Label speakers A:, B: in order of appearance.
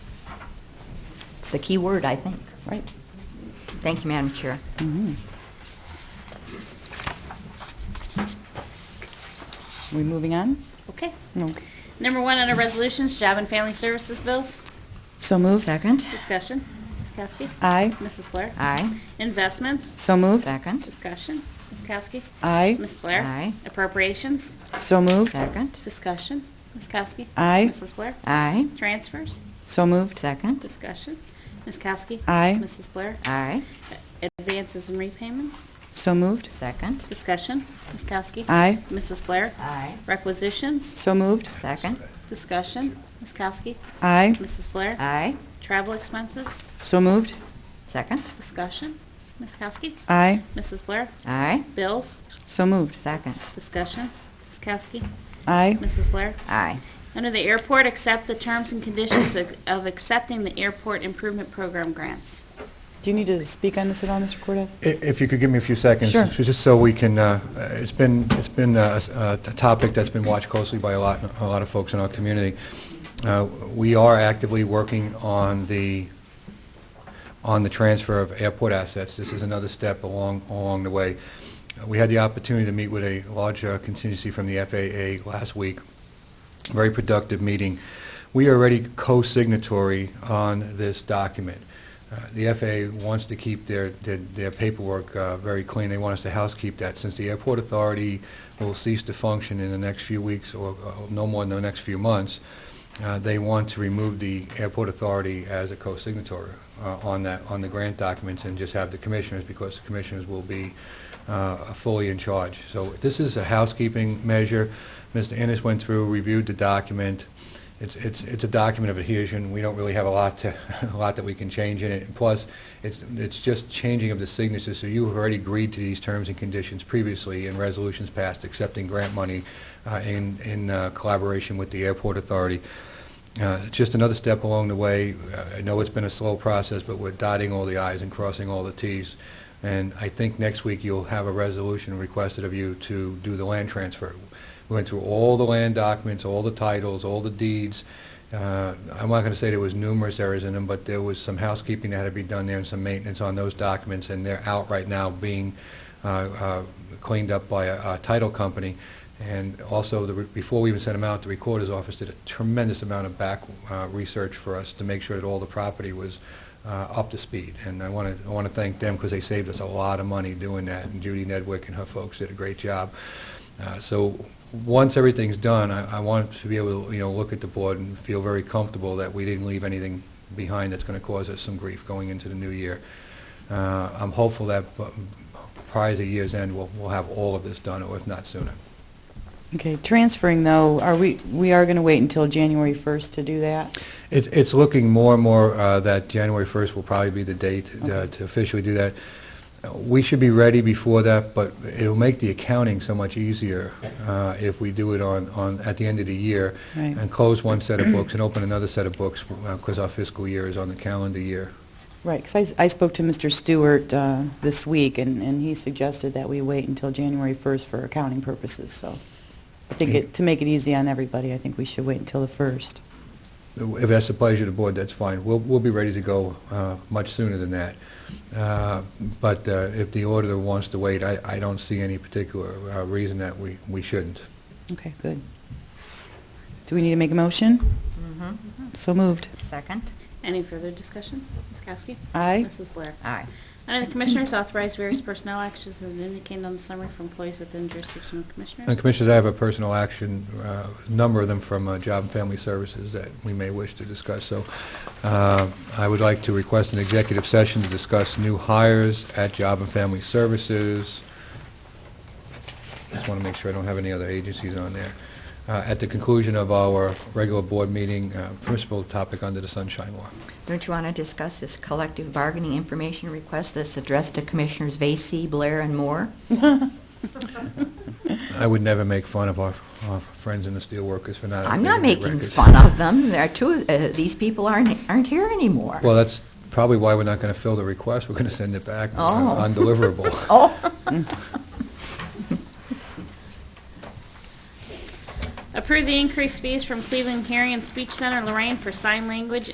A: That's the key word, I think, right? Thank you, Madam Chair.
B: We moving on?
C: Okay.
B: No.
C: Number one under resolutions, job and family services bills.
B: So moved.
A: Second?
C: Discussion. Ms. Kowski.
B: Aye.
C: Mrs. Blair.
A: Aye.
C: Investments.
B: So moved.
A: Second?
C: Discussion. Ms. Kowski.
B: Aye.
C: Ms. Blair.
A: Aye.
C: Appropriations.
B: So moved.
A: Second?
C: Discussion. Ms. Kowski.
B: Aye.
C: Mrs. Blair.
A: Aye.
C: Transfers.
B: So moved.
A: Second?
C: Discussion. Ms. Kowski.
B: Aye.
C: Mrs. Blair.
A: Aye.
C: Advances and repayments.
B: So moved.
A: Second?
C: Discussion. Ms. Kowski.
B: Aye.
C: Mrs. Blair.
A: Aye.
C: Requisitions.
B: So moved.
A: Second?
C: Discussion. Ms. Kowski.
B: Aye.
C: Mrs. Blair.
A: Aye.
C: Travel expenses.
B: So moved.
A: Second?
C: Discussion. Ms. Kowski.
B: Aye.
C: Mrs. Blair.
A: Aye.
C: Bills.
B: So moved.
A: Second?
C: Discussion. Ms. Kowski.
B: Aye.
C: Mrs. Blair.
A: Aye.
C: Under the airport, accept the terms and conditions of- of accepting the airport improvement program grants.
B: Do you need to speak on this at all, Mr. Cortez?
D: I- If you could give me a few seconds.
B: Sure.
D: Just so we can, uh, it's been, it's been uh, s- uh, a topic that's been watched closely by a lot, a lot of folks in our community. Uh, We are actively working on the, on the transfer of airport assets. This is another step along, along the way. Uh, We had the opportunity to meet with a large uh, contingency from the FAA last week. Very productive meeting. We are already co-signatory on this document. Uh, The FAA wants to keep their, their- their paperwork uh, very clean. They want us to housekeep that. Since the Airport Authority will cease to function in the next few weeks, or uh, no more than the next few months, uh, they want to remove the Airport Authority as a co-signatory uh, on that, on the grant documents, and just have the commissioners, because the commissioners will be uh, fully in charge. So this is a housekeeping measure. Mr. Ennis went through, reviewed the document. It's, it's, it's a document of adhesion. We don't really have a lot to, a lot that we can change in it. And plus, it's, it's just changing of the signatures, so you have already agreed to these terms and conditions previously in resolutions passed accepting grant money uh, in, in uh, collaboration with the airport authority. Uh, it's Just another step along the way. Uh, I know it's been a slow process, but we're dotting all the i's and crossing all the t's. And I think next week you'll have a resolution requested of you to do the land transfer. We went through all the land documents, all the titles, all the deeds. Uh, I'm not going to say there was numerous errors in them, but there was some housekeeping that had to be done there and some maintenance on those documents, and they're out right now being uh, uh, cleaned up by a a title company. And also, the re- before we even sent them out, the Recorder's Office did a tremendous amount of back uh, research for us to make sure that all the property was uh, up to speed. And I want to, I want to thank them because they saved us a lot of money doing that, and Judy Nedwick and her folks did a great job. Uh, So, once everything's done, I I want to be able to, you know, look at the board and feel very comfortable that we didn't leave anything behind that's going to cause us some grief going into the new year. Uh, I'm hopeful that bu- prior to the year's end, we'll we'll have all of this done, or if not sooner.
B: Okay, transferring though, are we, we are going to wait until January 1st to do that?
D: It's, it's looking more and more uh, that January 1st will probably be the date uh, to officially do that. Uh, We should be ready before that, but it'll make the accounting so much easier uh, if we do it on, on, at the end of the year.
B: Right.
D: And close one set of books and open another set of books, because our fiscal year is on the calendar year.
B: Right, because I spoke to Mr. Stewart uh, this week, and and he suggested that we wait until January 1st for accounting purposes, so I think it- to make it easy on everybody, I think we should wait until the 1st.
D: If that's the pleasure of the board, that's fine. We'll, we'll be ready to go uh, much sooner than that. Uh, But uh, if the auditor wants to wait, I, I don't see any particular uh, reason that we, we shouldn't.
B: Okay, good. Do we need to make a motion?
A: Mhm.
B: So moved.
A: Second?
C: Any further discussion? Ms. Kowski.
B: Aye.
C: Mrs. Blair.
A: Aye.
C: Under the Commissioners, authorize various personnel actions as indicated on the summary for employees within jurisdiction of
D: And
C: Commissioners.
D: Commissioners, I have a personal action, uh, a number of them from uh, Job and Family Services that we may wish to discuss. So uh, I would like to request an executive session to discuss new hires at Job and Family Services. Just want to make sure I don't have any other agencies on there. Uh, At the conclusion of our regular board meeting, uh, principal topic under the Sunshine Law.
A: Don't you want to discuss this collective bargaining information request that's addressed to Commissioners Vacy, Blair, and Moore?
D: I would never make fun of our our friends in the steelworkers for not...
A: I'm not
D: updating the
A: making
D: records.
A: fun of them. There are two, uh, these people aren't, aren't here anymore.
D: Well, that's probably why we're not going to fill the request. We're going to send it back uh,
A: Oh.
D: undeliverable.
A: Oh,
C: Approve the increased fees from Cleveland Hearing and Speech Center Lorraine for sign language